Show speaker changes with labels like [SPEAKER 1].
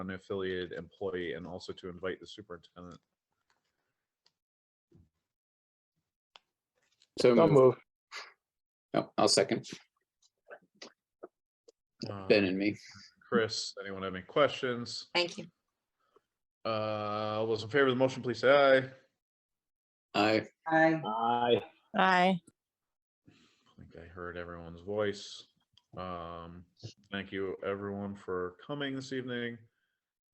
[SPEAKER 1] unaffiliated employee and also to invite the superintendent.
[SPEAKER 2] So
[SPEAKER 3] Don't
[SPEAKER 2] moved.
[SPEAKER 3] move.
[SPEAKER 2] Oh, I'll second.
[SPEAKER 1] Uh,
[SPEAKER 2] Ben and me.
[SPEAKER 1] Chris, anyone have any questions?
[SPEAKER 4] Thank you.
[SPEAKER 1] Uh, all those in favor of the motion, please say aye.
[SPEAKER 2] I,
[SPEAKER 5] Aye.
[SPEAKER 3] Aye.
[SPEAKER 6] Aye.
[SPEAKER 1] I think I heard everyone's voice. Um, thank you everyone for coming this evening.